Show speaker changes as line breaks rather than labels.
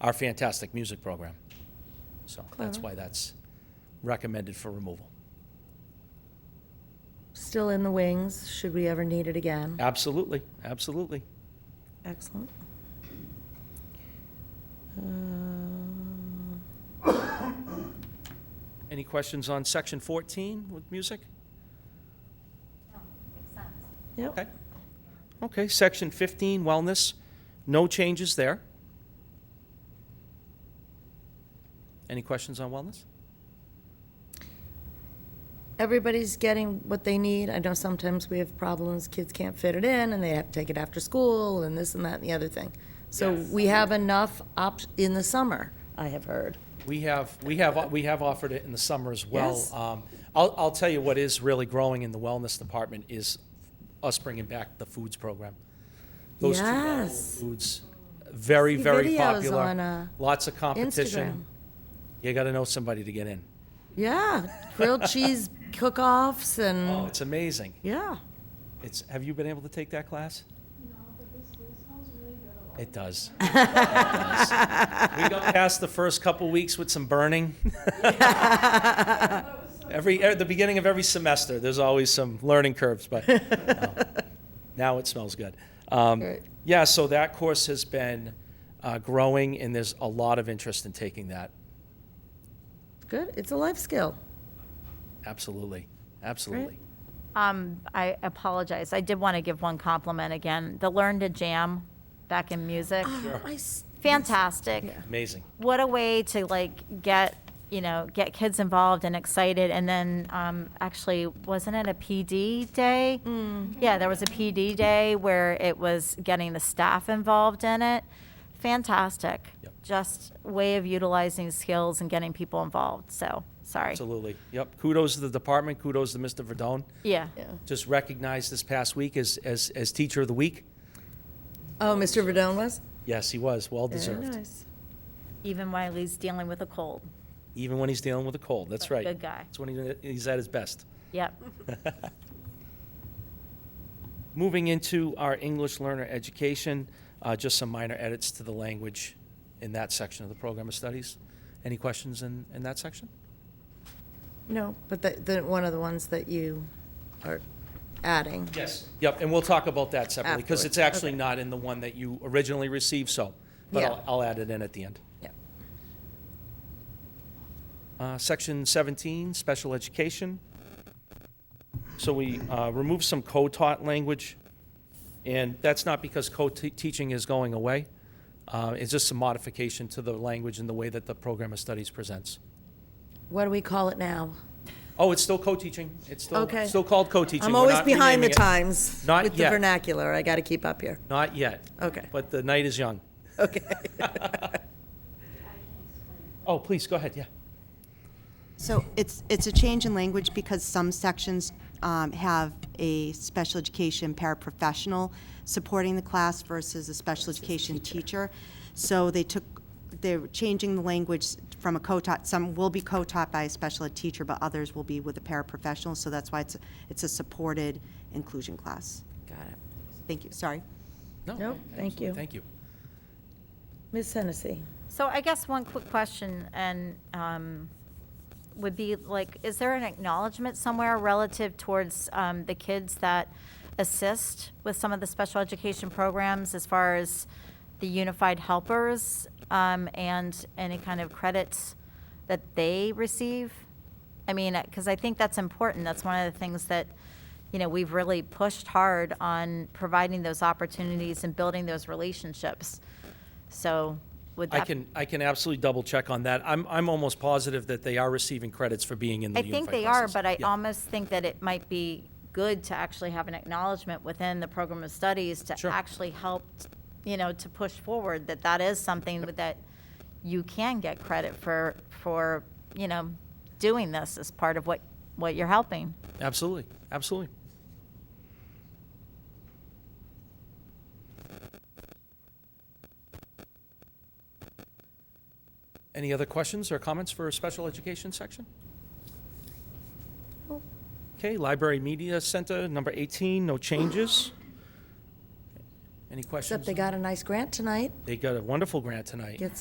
our fantastic music program. So that's
Clever.
why that's recommended for removal.
Still in the wings, should we ever need it again.
Absolutely, absolutely.
Excellent. Um,
Any questions on section 14 with music? Okay.
Yep,
Okay, section 15, wellness, no changes there. Any questions on wellness?
everybody's getting what they need. I know sometimes we have problems, kids can't fit it in, and they have to take it after school, and this and that and the other thing. So we have enough op, in the summer, I have heard.
We have, we have, we have offered it in the summer as well.
Yes.
Um, I'll, I'll tell you what is really growing in the wellness department is us bringing back the foods program. Those two novel
Yes.
foods, very,
See
very
videos
popular.
on, uh,
Lots of
Instagram.
competition. You got to know somebody to get in.
Yeah, grilled cheese cook-offs
Oh,
and,
it's amazing.
yeah.
It's, have you been able to take that class? It does. It does. We got past the first couple weeks with some burning. Every, at the beginning of every semester, there's always some learning curves, but no. now it smells good. Um,
Right.
Yeah, so that course has been uh, growing, and there's a lot of interest in taking that.
Good, it's a life skill.
Absolutely, absolutely.
Um, I apologize. I did want to give one compliment again. The Learn to Jam back in music.
I s-
Fantastic.
Amazing.
What a way to like get, you know, get kids involved and excited. And then um, actually, wasn't it a PD day?
Mm-hmm. Mm.
Yeah, there was a PD day where it was getting the staff involved in it. Fantastic.
Yep.
Just way of utilizing skills and getting people involved. So, sorry.
Absolutely. Yep. Kudos to the department. Kudos to Mr. Verdone.
Yeah.
Yeah.
just recognized this past week as, as, as Teacher of the Week.
Oh, Mr. Verdone was?
Yes, he was, well deserved.
nice.
Even while he's dealing with a cold.
Even when he's dealing with a cold, that's right.
Good guy.
That's when he- he's at his best.
Yep.
Moving into our English learner education, uh, just some minor edits to the language in that section of the program of studies. Any questions in, in that section?
No, but the, the, one of the ones that you are adding.
Yes. Yep, and we'll talk about that separately, because it's
Afterwards,
actually
okay.
not in the one that you originally received, so, but
Yeah.
I'll, I'll add it in at the end.
Yeah.
Uh, Section 17, special education. So we uh, remove some co-taught language, and that's not because co-teaching is going away. Uh, It's just some modification to the language and the way that the program of studies presents.
What do we call it now?
Oh, it's still co-teaching. It's still,
Okay.
still called co-teaching.
I'm
We're
always
not
behind the
renaming it.
times
Not
with
yet.
the vernacular. I got to keep up here.
Not yet.
Okay.
But the night is young.
Okay.
Oh, please, go ahead, yeah.
So it's, it's a change in language because some sections um, have a special education paraprofessional supporting the class versus a special education teacher. So they took, they're changing the language from a co-taught, some will be co-taught by a special ed teacher, but others will be with a paraprofessional. So that's why it's, it's a supported inclusion class.
got it.
Thank you, sorry.
No,
Nope, thank
absolutely,
you.
Thank you.
Ms. Hennessy,
So I guess one quick question and um, would be like, is there an acknowledgement somewhere relative towards um, the kids that assist with some of the special education programs as far as the unified helpers um, and any kind of credits that they receive? I mean, because I think that's important. That's one of the things that, you know, we've really pushed hard on providing those opportunities and building those relationships. So would that
I can, I can absolutely double check on that. I'm, I'm almost positive that they are receiving credits for being in the
I
unified
think they are,
process.
but I
Yeah.
almost think that it might be good to actually have an acknowledgement within the program of studies to
Sure.
actually help, you know, to push forward that that is something that you can get credit for, for, you know, doing this as part of what, what you're helping.
Absolutely, absolutely. Any other questions or comments for special education section? Okay, Library Media Center, number 18, no changes. Any questions?
except they got a nice grant tonight.
They got a wonderful grant tonight.
Get